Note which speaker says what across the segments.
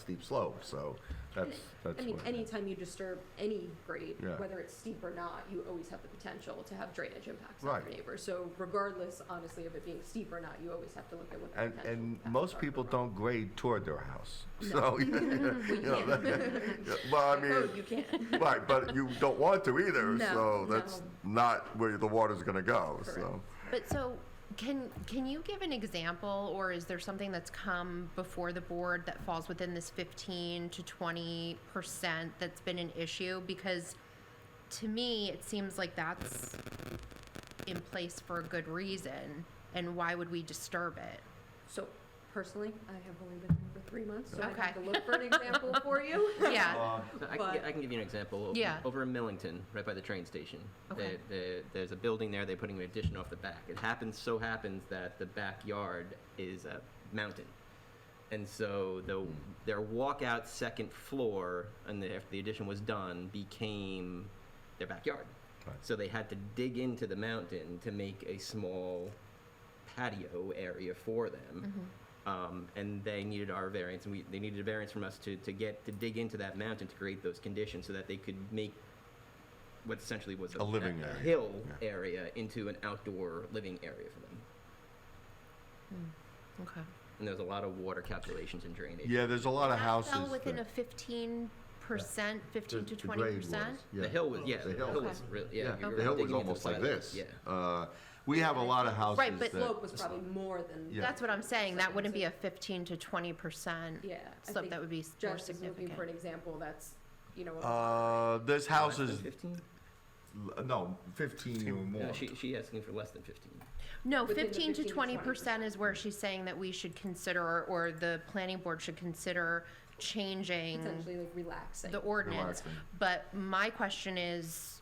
Speaker 1: steep slope, so that's, that's
Speaker 2: I mean,
Speaker 1: what.
Speaker 2: anytime you disturb any grade,
Speaker 1: Yeah.
Speaker 2: whether it's steep or not, you always have the potential to have drainage impacts on
Speaker 1: Right.
Speaker 2: your neighbors. So regardless, honestly, of it being steep or not, you always have to look at what the
Speaker 1: And,
Speaker 2: potential
Speaker 1: and
Speaker 2: impacts
Speaker 1: most
Speaker 2: are.
Speaker 1: people don't grade toward their house, so. you know, that- Well, I
Speaker 2: Oh,
Speaker 1: mean,
Speaker 2: you can.
Speaker 1: right, but you don't want to either,
Speaker 2: No,
Speaker 1: so that's not where the water's gonna go, so.
Speaker 2: Correct.
Speaker 3: But so, can, can you give an example, or is there something that's come before the board that falls within this fifteen to twenty percent that's been an issue? Because to me, it seems like that's in place for a good reason, and why would we disturb it?
Speaker 2: So personally, I have only been here for three months, so I
Speaker 3: Okay.
Speaker 2: have to look for an example for you.
Speaker 3: Yeah,
Speaker 4: I can, gi-
Speaker 2: But-
Speaker 4: I can give you an example.
Speaker 3: Yeah.
Speaker 4: Over in Millington, right by the train station.
Speaker 3: Okay.
Speaker 4: There- there- there's a building there, they're putting an addition off the back. It happens, so happens that the backyard is a mountain. And so the, their walkout second floor, and the, after the addition was done, became their backyard.
Speaker 1: Right.
Speaker 4: So they had to dig into the mountain to make a small patio area for them. Um, and they needed our variance, and we, they needed a variance from us to, to get, to dig into that mountain to create those conditions so that they could make what essentially was
Speaker 1: A living area,
Speaker 4: hill
Speaker 1: yeah.
Speaker 4: area into an outdoor living area for them.
Speaker 3: okay.
Speaker 4: And there's a lot of water calculations and drainage.
Speaker 1: Yeah, there's a lot of
Speaker 3: That
Speaker 1: houses.
Speaker 3: fell within a
Speaker 1: that-
Speaker 3: fifteen percent, fifteen
Speaker 1: the-
Speaker 3: to
Speaker 1: the grade
Speaker 3: twenty percent?
Speaker 1: was, yeah.
Speaker 4: The hill was, yeah,
Speaker 1: The
Speaker 4: the
Speaker 1: hill.
Speaker 4: hill was,
Speaker 3: Okay.
Speaker 4: real- yeah. you were
Speaker 1: The hill was
Speaker 4: digging into the
Speaker 1: almost like
Speaker 4: side of it,
Speaker 1: this.
Speaker 4: Yeah.
Speaker 1: Uh, we have a lot of houses
Speaker 3: Right, but
Speaker 1: that-
Speaker 2: Slope was probably more than.
Speaker 1: Yeah.
Speaker 3: That's what I'm saying, that wouldn't be a
Speaker 2: Yeah,
Speaker 3: fifteen to twenty percent
Speaker 2: I
Speaker 3: slope,
Speaker 2: think
Speaker 3: that would be s- more
Speaker 2: Jess is looking for an
Speaker 3: significant.
Speaker 2: example that's, you know, a-
Speaker 1: Uh, there's
Speaker 4: Less than
Speaker 1: houses,
Speaker 4: 15?
Speaker 1: no, fifteen or more.
Speaker 4: No, she, she asking for less than fifteen.
Speaker 3: No,
Speaker 2: within the
Speaker 3: fifteen to
Speaker 2: 15 to
Speaker 3: twenty
Speaker 2: 20%.
Speaker 3: percent is where she's saying that we should consider, or- or the planning board should consider changing
Speaker 2: potentially like relaxing.
Speaker 3: the ordinance.
Speaker 1: Relaxing.
Speaker 3: But my question is,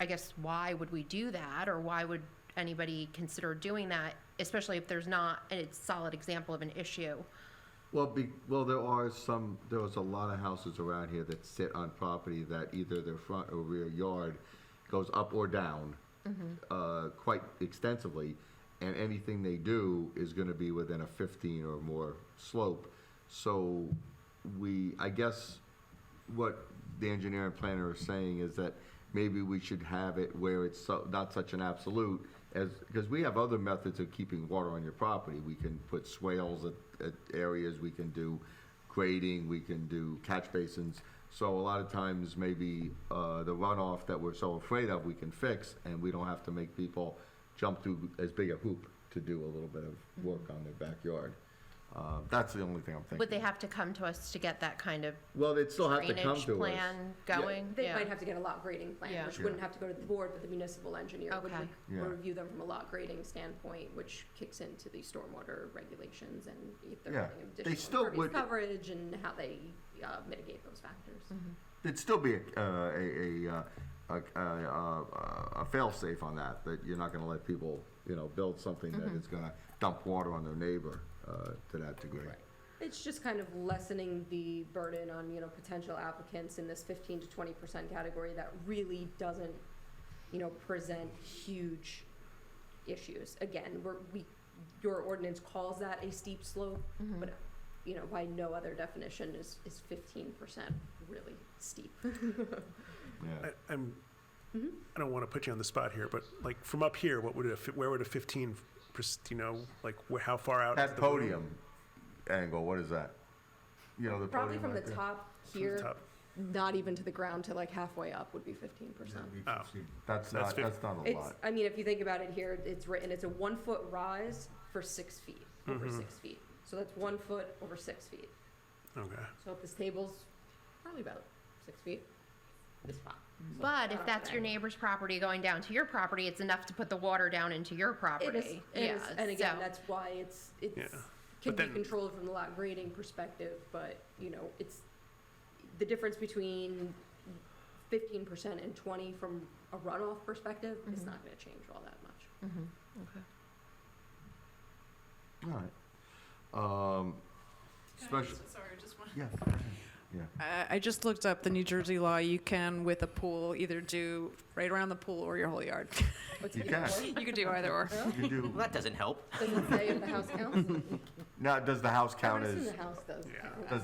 Speaker 3: I guess, why would we do that, or why would anybody consider doing that? Especially if there's not a solid example of an issue.
Speaker 1: Well, be, well, there are some, there was a lot of houses around here that sit on property that either their front or rear yard goes up or down, uh, quite extensively, and anything they do is gonna be within a fifteen or more slope. So, we, I guess, what the engineer and planner are saying is that maybe we should have it where it's so, not such an absolute as, because we have other methods of keeping water on your property. We can put swales at, at areas, we can do grading, we can do catch basins. So a lot of times, maybe, uh, the runoff that we're so afraid of, we can fix, and we don't have to make people jump through as big a hoop to do a little bit of work on their backyard. Uh, that's the only thing I'm thinking.
Speaker 3: Would they have to come to us to get that kind of
Speaker 1: Well, they'd still have to come
Speaker 3: drainage
Speaker 1: to us.
Speaker 3: plan going?
Speaker 2: They
Speaker 3: Yeah.
Speaker 2: might have to get a lot grading plan,
Speaker 3: Yeah.
Speaker 2: which
Speaker 1: Yeah.
Speaker 2: wouldn't have to go to the board, but the municipal engineer would
Speaker 3: Okay.
Speaker 2: re-
Speaker 1: Yeah.
Speaker 2: review them from a lot grading standpoint, which kicks into the stormwater regulations and if they're
Speaker 1: Yeah.
Speaker 2: having
Speaker 1: They still
Speaker 2: additional impervious
Speaker 1: would-
Speaker 2: coverage and how they uh, mitigate those factors.
Speaker 3: Mm-hmm.
Speaker 1: It'd still be a, uh, a, a, uh, a, a, uh, a, a fail-safe on that, that you're not gonna let people, you know, build something that
Speaker 2: Mm-hmm.
Speaker 1: is gonna dump water on their neighbor, uh, to that degree.
Speaker 2: It's just kind of lessening the burden on, you know, potential applicants in this fifteen to twenty percent category that really doesn't, you know, present huge issues. Again, we're, we, your ordinance calls that a steep slope, but, you know, by no other definition is, is fifteen percent really steep.
Speaker 1: Yeah,
Speaker 5: I, I'm, I don't want to put you on the spot here, but like from up here, what would a, fi- where would a fifteen, perc- you know, like where, how far out? is
Speaker 1: that
Speaker 5: the room?
Speaker 1: podium angle, what is that? You know, the podium.
Speaker 2: Probably from the
Speaker 1: right there.
Speaker 2: top
Speaker 5: From the
Speaker 2: here,
Speaker 5: top.
Speaker 2: not even to the ground to like halfway up would be fifteen percent.
Speaker 5: Oh.
Speaker 1: That's
Speaker 5: That's
Speaker 1: not,
Speaker 5: fif-
Speaker 1: that's not a
Speaker 2: It's,
Speaker 1: lot.
Speaker 2: I mean, if you think about it here, it's written, it's a one foot rise for six feet, over six feet. So that's one foot over six feet.
Speaker 5: Okay.
Speaker 2: So if this table's probably about six feet, it's fine. So
Speaker 3: But if
Speaker 2: I
Speaker 3: that's your
Speaker 2: don't know.
Speaker 3: neighbor's property going down to your property, it's enough to put the water down into your
Speaker 2: It
Speaker 3: property.
Speaker 2: is, it is, and again,
Speaker 3: so-
Speaker 2: that's why it's,
Speaker 5: Yeah.
Speaker 2: it's, can
Speaker 5: But
Speaker 2: be
Speaker 5: then-
Speaker 2: controlled from the lot grading perspective, but, you know, it's, the difference between fifteen percent and twenty from a runoff perspective is
Speaker 6: Mm-hmm.
Speaker 2: not gonna change all that much.
Speaker 3: Mm-hmm.
Speaker 1: Alright. Um,
Speaker 6: Can I
Speaker 1: special,
Speaker 6: just- Sorry, just one.
Speaker 1: yeah, yeah.
Speaker 6: I I just looked up the New Jersey law. You can, with a pool, either do right around the pool or your whole yard.
Speaker 1: You can,
Speaker 6: You could do either or.
Speaker 1: you do,
Speaker 4: Well, that doesn't help.
Speaker 2: Does it say if the house counts?
Speaker 1: now, does the house
Speaker 2: I would
Speaker 1: count as?
Speaker 2: assume the house does.
Speaker 5: Yeah.
Speaker 2: count.
Speaker 1: Does